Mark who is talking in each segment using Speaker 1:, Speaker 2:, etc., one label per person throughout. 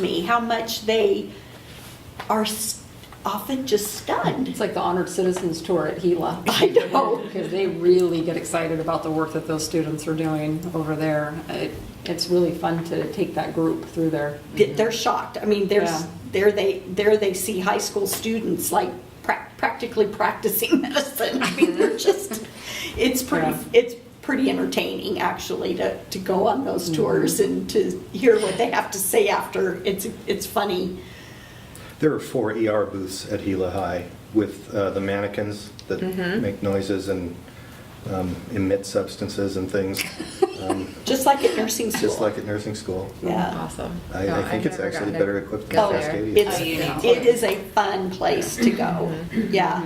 Speaker 1: me how much they are s- often just stunned.
Speaker 2: It's like the Honored Citizens Tour at Gila.
Speaker 1: I know.
Speaker 2: Because they really get excited about the work that those students are doing over there. It- It's really fun to take that group through there.
Speaker 1: That They're shocked. I mean, there's,
Speaker 2: Yeah.
Speaker 1: there they, there they see high school students like prac- practically practicing medicine. I mean, they're just, it's pretty,
Speaker 2: Yeah.
Speaker 1: it's pretty entertaining actually to, to go on those
Speaker 2: Mm-hmm.
Speaker 1: tours and to hear what they have to say after. It's, it's funny.
Speaker 3: There are four ER booths at Gila High with uh, the mannequins that make noises and um, emit substances and things, um,
Speaker 1: Just like at nursing school.
Speaker 3: just like at nursing school.
Speaker 1: Yeah.
Speaker 4: Awesome.
Speaker 3: I- I think it's actually better equipped than
Speaker 1: Oh,
Speaker 3: Cascadia.
Speaker 1: it's,
Speaker 4: Oh, you need
Speaker 1: it
Speaker 4: to.
Speaker 1: is a fun place to go, yeah.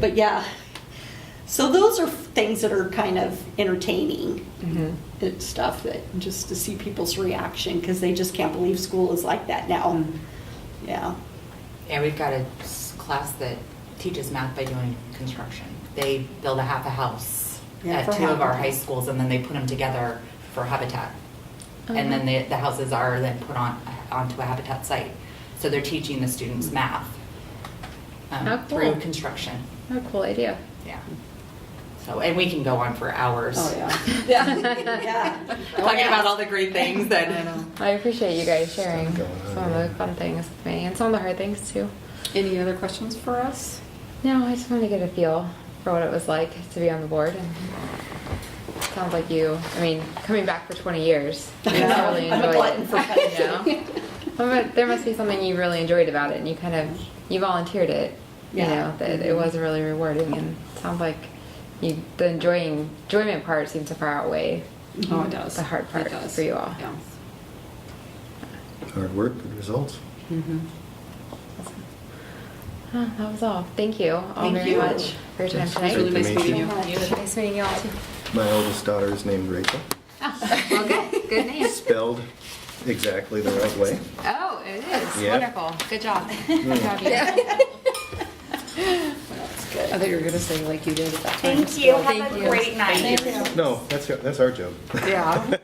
Speaker 1: But yeah, so those are things that are kind of entertaining. and stuff that, just to see people's reaction, because they just can't believe school is like that now. Yeah,
Speaker 4: And we've got a s- class that teaches math by doing construction. They build a half a house
Speaker 1: Yeah,
Speaker 4: at
Speaker 1: for
Speaker 4: two of our
Speaker 1: Habitat.
Speaker 4: high schools and then they put them together for Habitat. And then the, the houses are then put on, onto a Habitat site. So they're teaching the students math um,
Speaker 5: How
Speaker 4: through
Speaker 5: cool.
Speaker 4: construction,
Speaker 5: Oh, cool idea.
Speaker 4: yeah. So, and we can go on for hours.
Speaker 2: Oh, yeah.
Speaker 1: yeah,
Speaker 4: Talking about all the great things that,
Speaker 5: I appreciate you guys sharing
Speaker 3: Stuff going on,
Speaker 5: some of the
Speaker 3: yeah.
Speaker 5: fun things with me and some of the hard things too.
Speaker 2: Any other questions for us?
Speaker 5: No, I just wanted to get a feel for what it was like to be on the board. And it sounds like you, I mean, coming back for 20 years, you
Speaker 1: I know.
Speaker 5: really
Speaker 1: I'm a
Speaker 5: enjoyed
Speaker 1: glutton
Speaker 5: it.
Speaker 1: for
Speaker 5: you know? Well, but there must be something you really enjoyed about it and you kind of, you volunteered it, you
Speaker 1: Yeah.
Speaker 5: know, that it was really rewarding and it sounds like you, the enjoying, enjoyment part seems to far outweigh
Speaker 2: Oh, it does.
Speaker 5: The hard
Speaker 2: It
Speaker 5: part
Speaker 2: does.
Speaker 5: for you all.
Speaker 2: Yeah.
Speaker 3: Hard work, good results.
Speaker 2: Mm-hmm.
Speaker 5: Huh, Ah, That was all. Thank you all
Speaker 1: Thank
Speaker 5: very
Speaker 1: you.
Speaker 5: much for your time
Speaker 2: It's really
Speaker 3: Great
Speaker 5: tonight.
Speaker 2: nice
Speaker 3: to
Speaker 2: meeting
Speaker 3: meet
Speaker 2: you.
Speaker 5: Nice meeting you all too.
Speaker 3: My oldest daughter is named Rachel,
Speaker 5: Okay, good name.
Speaker 3: spelled exactly the right way. Hmm.
Speaker 5: Oh, it is.
Speaker 3: Yeah.
Speaker 5: Wonderful. Good job. Good job, you.
Speaker 2: I thought you were going to say like you did at that time.
Speaker 4: thank you, have a great night.
Speaker 3: No, that's, that's our job.
Speaker 2: Yeah.